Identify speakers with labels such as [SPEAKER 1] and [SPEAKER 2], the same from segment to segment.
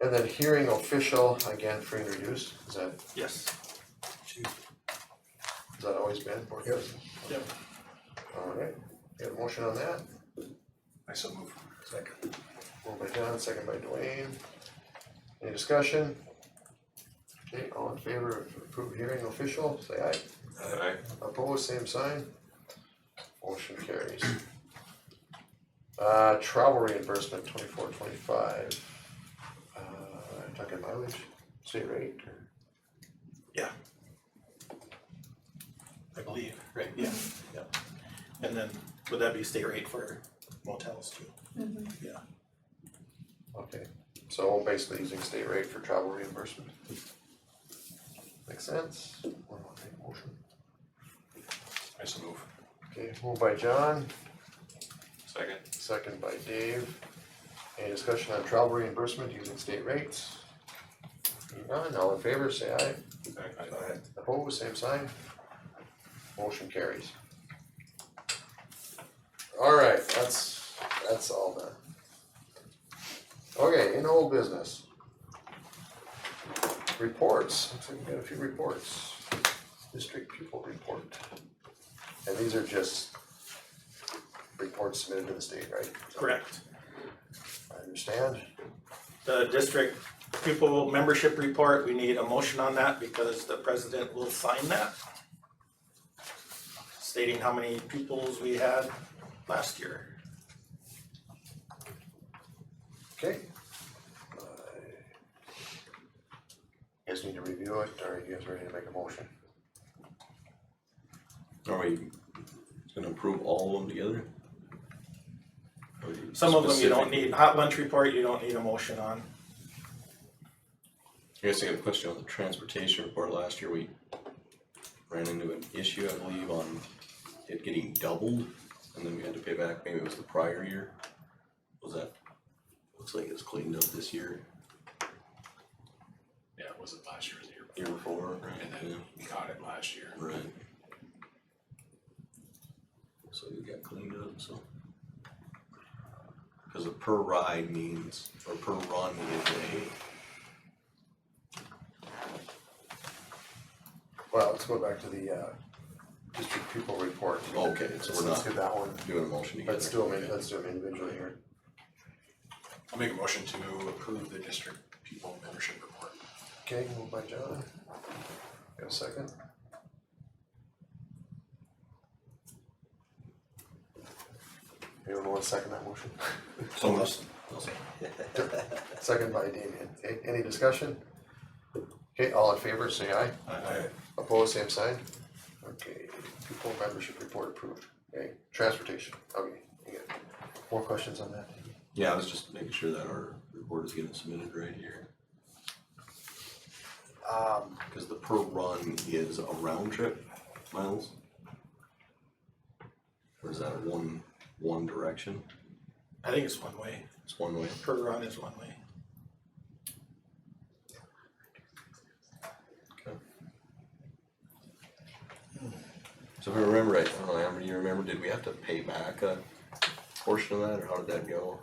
[SPEAKER 1] And then hearing official, again, free and reduced, is that,
[SPEAKER 2] Yes.
[SPEAKER 1] has that always been board
[SPEAKER 3] Yep.
[SPEAKER 1] business?
[SPEAKER 2] Yep.
[SPEAKER 1] Alright, got a motion on that,
[SPEAKER 3] I so move. Second.
[SPEAKER 1] moved by John, second by Dwayne. Any discussion? Okay, all in favor of approved hearing official, say aye.
[SPEAKER 4] Alright,
[SPEAKER 1] Opposed, same sign. Motion carries. Uh, travel reimbursement twenty-four, twenty-five. Uh, talking mileage, state rate, or-
[SPEAKER 2] I believe, right, yeah, yeah. And then, would that be state rate for motels too? Yeah,
[SPEAKER 1] okay, so basically using state rate for travel reimbursement. Makes sense? One more thing, motion.
[SPEAKER 3] I so move.
[SPEAKER 1] Okay, moved by John,
[SPEAKER 4] second,
[SPEAKER 1] second by Dave. Any discussion on travel reimbursement using state rates? Hearing None, all in favor, say aye.
[SPEAKER 4] alright,
[SPEAKER 3] Aye.
[SPEAKER 1] Opposed, same sign. Motion carries. Alright, that's, that's all done. Okay, in old business. Reports, looks like we got a few reports. District pupil report. And these are just reports submitted to the state, right?
[SPEAKER 2] correct.
[SPEAKER 1] I understand.
[SPEAKER 2] The district pupil membership report, we need a motion on that because the president will sign that. Stating how many pupils we had last year.
[SPEAKER 1] Okay. Uh, Guys need to review it, or you guys ready to make a motion?
[SPEAKER 5] Are we gonna approve all of them together? Or you
[SPEAKER 2] Some of them you don't
[SPEAKER 5] specific-
[SPEAKER 2] need, hot lunch report, you don't need a motion on.
[SPEAKER 5] I guess I got a question on the transportation report, last year we ran into an issue, I believe, on it getting doubled, and then we had to pay back, maybe it was the prior year. Was that, looks like it's cleaned up this year,
[SPEAKER 6] Yeah, it wasn't last year, it was the year
[SPEAKER 5] year before, right?
[SPEAKER 6] And
[SPEAKER 5] Yeah,
[SPEAKER 6] then we caught it last year.
[SPEAKER 5] Right. So it got cleaned up, so. Cause a per ride means, or per run is a
[SPEAKER 1] Well, let's go back to the uh district pupil report.
[SPEAKER 5] Okay, so
[SPEAKER 1] Let's
[SPEAKER 5] we're
[SPEAKER 1] let's
[SPEAKER 5] not
[SPEAKER 1] do that one.
[SPEAKER 5] doing a motion together.
[SPEAKER 1] Let's do them, let's do them individually here.
[SPEAKER 3] I'll make a motion to approve the district people membership report.
[SPEAKER 1] Okay, moved by John. Got a second? Anyone want to second that motion?
[SPEAKER 5] So much.
[SPEAKER 1] Second by Damien. Okay, any discussion? Okay, all in favor, say aye.
[SPEAKER 3] Aye.
[SPEAKER 1] Opposed, same sign? Okay, pupil membership report approved. Okay, transportation, okay, you got more questions on that?
[SPEAKER 5] Yeah, I was just making sure that our report is getting submitted right here,
[SPEAKER 1] Um,
[SPEAKER 5] because the per run is a round trip miles. Or is that a one, one direction?
[SPEAKER 2] I think it's one way,
[SPEAKER 5] It's one way.
[SPEAKER 2] per run is one way.
[SPEAKER 5] Okay. So if I remember right, I don't know, Amber, you remember, did we have to pay back a portion of that, or how did that go?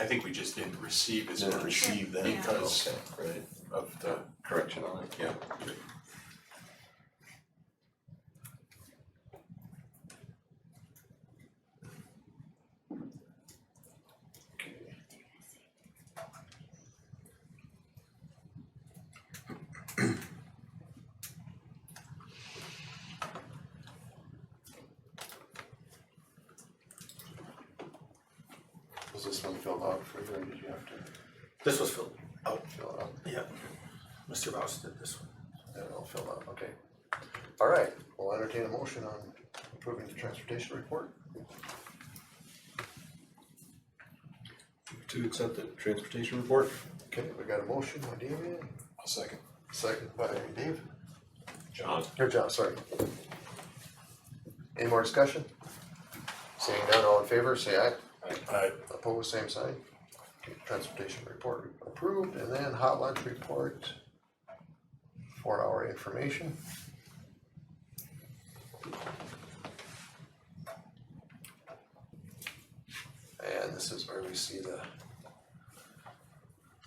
[SPEAKER 6] I think we just didn't receive as
[SPEAKER 5] Didn't
[SPEAKER 6] much
[SPEAKER 5] receive
[SPEAKER 7] then.
[SPEAKER 6] because
[SPEAKER 5] Okay, right,
[SPEAKER 6] of the,
[SPEAKER 5] correction on it, yeah.
[SPEAKER 1] was this one filled out for you, or did you have to
[SPEAKER 2] This was filled out,
[SPEAKER 1] fill it out?
[SPEAKER 2] yeah. Mr. Rouse did this one.
[SPEAKER 1] That all filled out, okay. All right, we'll entertain a motion on approving the transportation report.
[SPEAKER 5] To accept the transportation report?
[SPEAKER 1] Okay, we got a motion by Damien,
[SPEAKER 3] I'll second.
[SPEAKER 1] second by Dave.
[SPEAKER 4] John,
[SPEAKER 1] Your job, sorry. Any more discussion? Seeing none, all in favor, say aye.
[SPEAKER 3] Aye.
[SPEAKER 1] Opposed, same sign. Okay, Transportation report approved, and then hot lunch report. Four hour information. And this is where we see the